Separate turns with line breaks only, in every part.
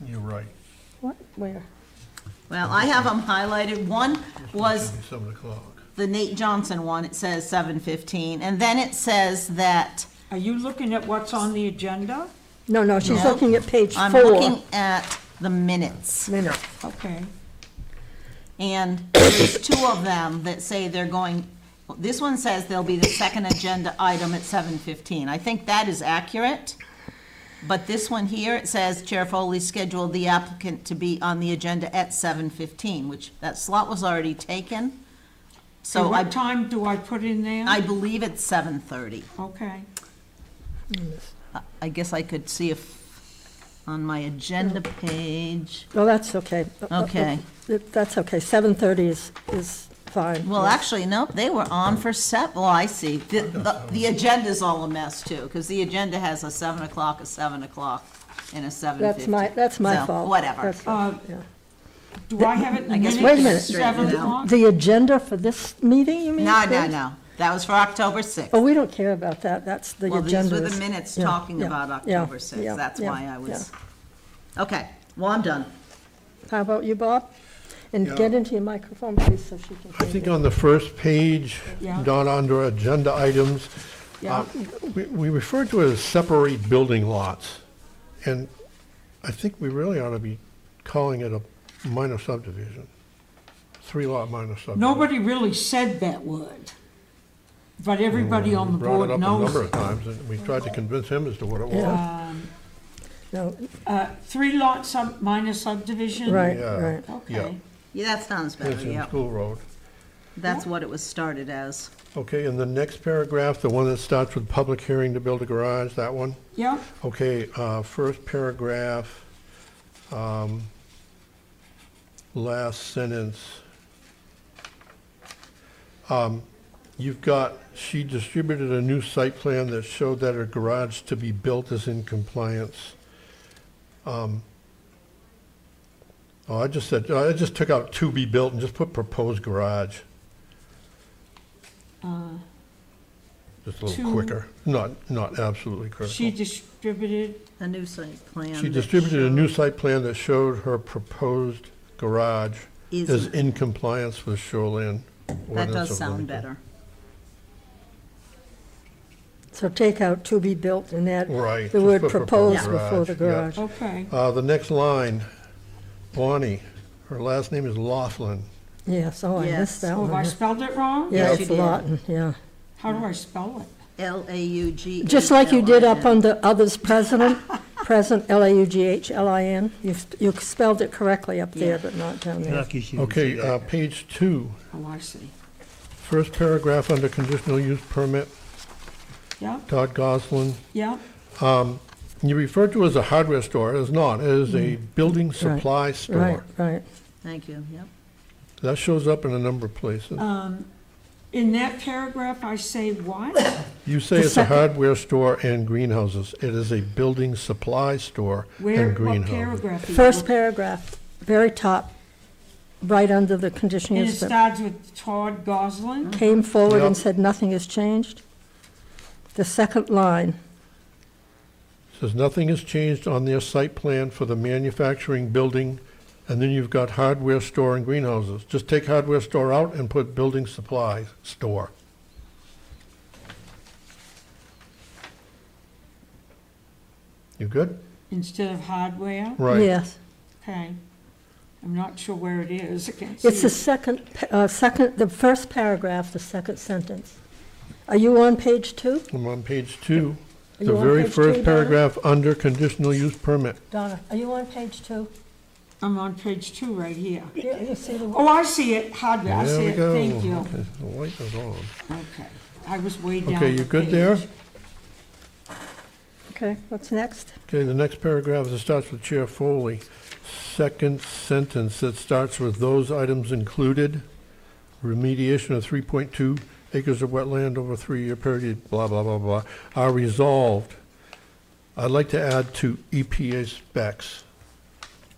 right,
What, where?
Well, I have them highlighted. One was
seven o'clock.
the Nate Johnson one, it says seven fifteen, and then it says that,
Are you looking at what's on the agenda?
No, no, she's
No.
looking at page
I'm
four.
looking at the minutes.
Minute.
Okay.
And there's two of them that say they're going, this one says they'll be the second agenda item at seven fifteen. I think that is accurate. But this one here, it says Chair Foley scheduled the applicant to be on the agenda at seven fifteen, which that slot was already taken.
So
So I,
what time do I put in there?
I believe it's seven thirty.
Okay.
I- I guess I could see if, on my agenda page,
No, that's okay. Uh,
Okay.
That- That's okay, 7:30 is, is fine.
well,
Yeah.
actually, nope, they were on for seven, well, I see. The, the- the agenda's all a mess too, because the agenda has a seven o'clock, a seven o'clock, and a seven fifty.
That's my, that's my fault.
Whatever.
That's-
Uh,
yeah.
Do I have it in the
I guess
minutes?
we
Wait a minute.
Seven
Straighten it out.
o'clock?
The agenda for this meeting, you mean?
No, no,
Chris?
no, that was for October sixth.
Oh, we don't care about that, that's the
Well,
agenda.
these were the
is-
minutes
yeah,
talking
yeah,
about
yeah,
October
yeah,
sixth, that's
yeah,
why I was,
yeah.
okay, well, I'm done.
How about you, Bob?
Yeah.
And get into your microphone, please, so she can
I
hear
think
you.
on the first page,
Yeah.
Donna, under agenda items, uh, we we refer to it as separate building lots. And I think we really ought to be calling it a minor subdivision, three-lot minor subdivision.
Nobody really said that word, but everybody on the
Mm, Brought it
board
up a number
knows.
of times, and we tried to convince him as to what it was.
Yeah.
Um,
No,
Uh, Three lot sub, minor subdivision?
Right,
Yeah.
right.
Yeah.
Okay.
Yeah, that sounds better,
It's in
yeah,
School Road.
that's what it was started as.
Okay, and the next paragraph, the one that starts with public hearing to build a garage, that one?
Yeah,
Okay, uh, first paragraph, um, last sentence. Um, You've got, she distributed a new site plan that showed that her garage to be built is in compliance. Um, Oh, I just said, I just took out to be built and just put proposed garage,
uh,
just a little
To-
quicker, not, not absolutely critical.
she distributed,
A new site plan.
She
that
distributed a new
showed
site plan that showed her proposed garage is
easement.
in compliance with shoreline
That
ordinance.
does
of
sound
Livingston.
better.
So take out to be built and add
Right.
the
just
word
put
proposed before the
yeah.
garage.
okay.
Uh, the next line, Bonnie, her last name is Laughlin.
Yes, oh, I
Yes.
missed that
Have
one. yeah.
I spelled it wrong?
Yeah,
Yes,
it's
you did.
Lawton, yeah.
How do I spell it?
L E. A U G.
Just like you did up on the others president, present, L-A-U-G-H-L-I-N. You sp- you spelled it correctly up there,
Yeah.
but not down there.
Lucky she didn't say
Okay,
that.
uh, page two,
Oh, I see.
first paragraph under conditional use permit,
Yeah,
Todd Goslin.
yeah,
You refer to it as a hardware store, it is not, it is a building supply
Mm. Right,
store.
right.
Thank you, yep.
That shows up in a number of places.
in that paragraph, I say what?
You say
The
it's a
second-
hardware store and greenhouses. It is a building supply store
Where,
and
what
greenhouses.
paragraph? are you
First
on?
paragraph, very top, right under the conditional
And it
use, but
starts with Todd Goslin?
came forward and
Yeah.
said nothing has changed. The second line,
Says nothing has changed on their site plan for the manufacturing building, and then you've got hardware store and greenhouses. Just take hardware store out and put building supply store. You good?
instead of hardware?
Right.
yes.
Okay. I'm not sure where it is. I can't see
It's the
it.
second, pa- uh, second, the first paragraph, the second sentence. Are you on page two?
I'm on page two. The
Are you on
very
page two,
first
Donna?
paragraph, under conditional use permit.
Donna, are you on page two?
I'm on page two right here.
You you see the,
Oh, I see it, hardware, I
There
see
we
it,
go.
thank you.
Okay, The light is on.
Okay, I was way down.
Okay, you
the
good there?
page.
okay, what's next?
Okay, the next paragraph, it starts with Chair Foley. Second sentence, it starts with those items included. Remediation of three point two acres of wetland over a three-year period, blah, blah, blah, blah, are resolved. I'd like to add to EPA specs.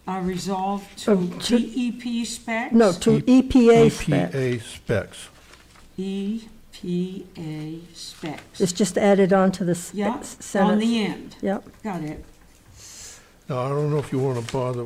I resolved to
Um, to-
DEP specs?
No, to
E
EPA spec.
EPA specs.
EPA E specs.
It's just added on to the s-
Yeah,
s-
on E
sentence.
the end,
Yep.
got it.
Now, I don't know if you want to bother